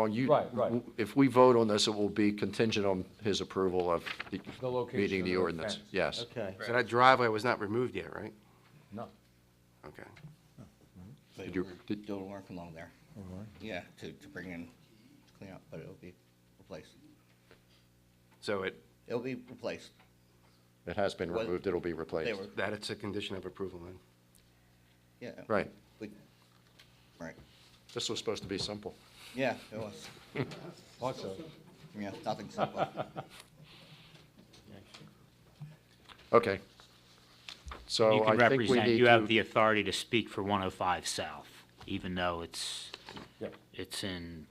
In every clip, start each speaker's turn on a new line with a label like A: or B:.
A: Well, you-
B: Right, right.
A: If we vote on this, it will be contingent on his approval of the-
B: The location
A: meeting
B: of
A: the
B: the
A: ordinance.
B: fence.
A: Yes.
C: Okay, so that driveway was not removed yet, right?
B: No.
C: Okay.
D: They
A: Did you-
D: were
A: did-
D: doing work along there. Yeah, to, to bring in, to clean up, but it'll be replaced.
C: So it,
D: It'll be replaced.
A: It has been
D: Well,
A: removed, it'll be replaced.
D: They were,
C: that it's a condition of approval then?
D: yeah.
A: Right.
D: we- Right,
A: This was supposed to be simple.
D: yeah, it was,
B: Also,
D: yeah, nothing simple.
A: Okay.
E: You
A: So
E: can
A: I think we
E: represent,
A: need
E: you have the
A: to,
E: authority to speak for 105 South, even though it's,
B: yeah,
E: it's in,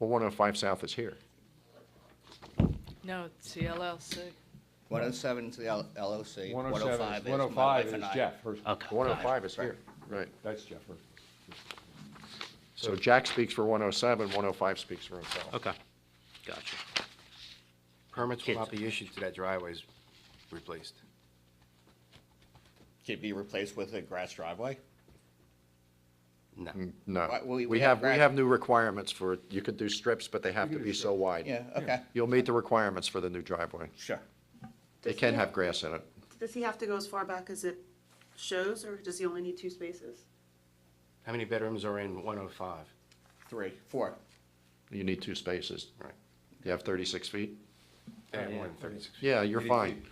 A: well, 105 South is here.
F: No, it's the LLC.
D: One oh seven to the L- LOC, one oh
B: 107,
D: five
B: is-
D: is my
B: 105
D: wife
B: is
D: and I.
B: Jeff, Hirsch-
E: okay.
A: 105 is here, right.
B: that's Jeff. Hirsch.
A: So Jack speaks for 107, 105 speaks for himself.
E: Okay, gotcha.
C: Permits will not be issued to that driveway's replaced.
D: Could it be replaced with a grass driveway?
C: No.
A: No.
D: Right, we-
A: We
D: we
A: have,
D: have
A: we
D: gra-
A: have new requirements for, you could do strips, but they have to be so wide.
D: Yeah, okay,
A: You'll meet the requirements for the new driveway.
D: sure.
A: They
G: Does he
A: can have grass in it.
G: Does he have to go as far back as it shows, or does he only need two spaces?
C: How many bedrooms are in 105?
D: Three, four,
A: You need two spaces.
C: Right.
A: You have 36 feet?
D: Uh,
C: And one, 36.
A: Yeah, you're fine.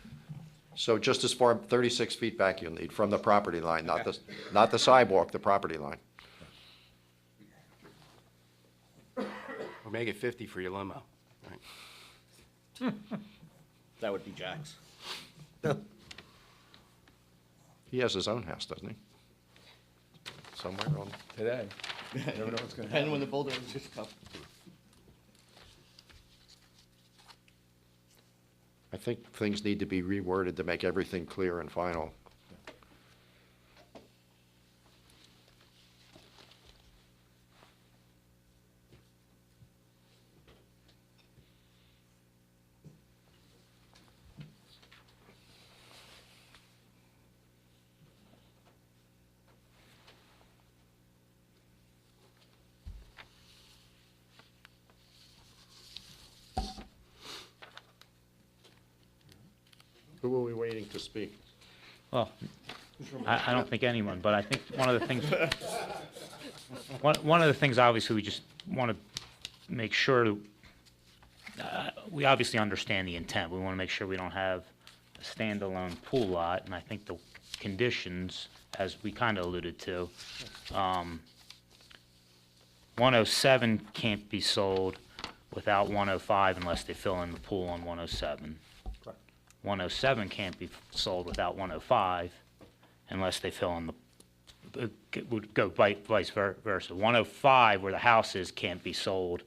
A: So just as far, 36 feet back you'll need from the property line, not the, not the sidewalk, the property line.
C: Or make it 50 for your limo. Right.
D: that would be Jack's.
A: He has his own house, doesn't he? Somewhere on,
B: Today, never know what's gonna happen.
D: Depending when the bulldozers come.
A: I think things need to be reworded to make everything clear and final. Who are we waiting to speak?
E: Well, I, I don't think anyone, but I think one of the things, one, one of the things, obviously, we just want to make sure, uh, we obviously understand the intent. We want to make sure we don't have a standalone pool lot, and I think the conditions, as we kind of alluded to, um, 107 can't be sold without 105 unless they fill in the pool on 107. 107 can't be sold without 105 unless they fill in the, it would go vi- vice ver- versa. 105, where the house is, can't be sold.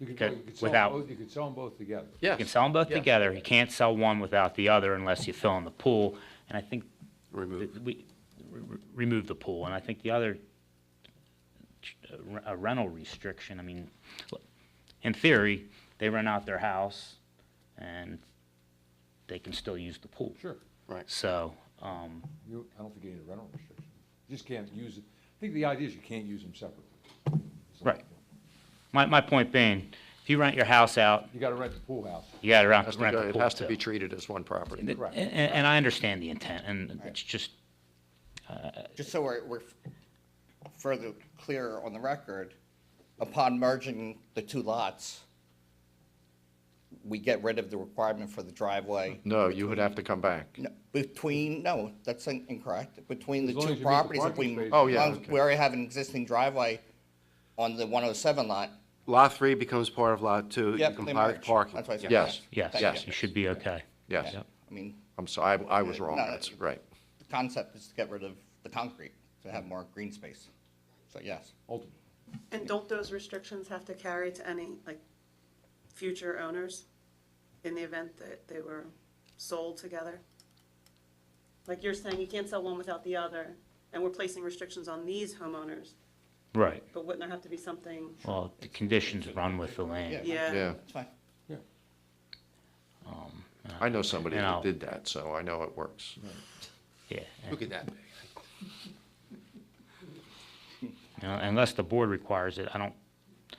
B: You could-
E: Okay,
B: you could sell 'em
E: without-
B: both- You could sell them both together.
E: You can sell them both together, you can't sell one without the other unless you fill in the pool. And I think
C: Remove.
E: that we re- re- remove the pool, and I think the other uh, re- a rental restriction, I mean, look, in theory, they rent out their house and they can still use the pool.
B: Sure.
C: Right.
E: So, um,
B: You, I don't think you need a rental restriction. You just can't use it. I think the idea is you can't use them separately.
E: Right. my, my point being, if you rent your house out,
B: You gotta rent the pool house.
E: you gotta rent
A: Has to
E: rent
A: go-
E: the pool
A: It has to
E: too.
A: be treated as one property.
E: And, and- and I understand the intent, and it's just,
D: Just so we're, we're further clear on the record, upon merging the two lots, we get rid of the requirement for the driveway
A: No, you would have to come back.
D: No, between, no, that's in- incorrect, between the
B: As long
D: two
B: as you meet the
D: properties, if
B: parking
D: we.
B: spaces.
A: Oh, yeah,
D: as long as
A: okay.
D: We already have an existing driveway on the one oh seven lot.
C: Lot 3 becomes part of Lot 2.
D: Yep,
C: You
D: they
C: comply with
D: merge.
C: parking.
D: That's why I said
C: Yeah.
A: Yes,
E: yes,
D: Thank
A: yes.
E: you should be okay.
A: Yes.
D: Yeah, I mean,
A: I'm sorry, I I was wrong,
D: No, no.
A: that's right.
D: the concept is to get rid of the concrete, to have more green space, so yes.
B: Ultimately,
G: And don't those restrictions have to carry to any, like, future owners in the event that they were sold together? Like you're saying, you can't sell one without the other, and we're placing restrictions on these homeowners,
E: Right.
G: but wouldn't there have to be something?
E: Well, the conditions run with the land.
G: Yeah,
A: Yeah,
D: It's fine.
A: I know somebody
E: And
A: that
E: I'll-
A: did that, so I know it works.
E: Yeah.
C: Look at that.
E: You know, Unless the board requires it, I don't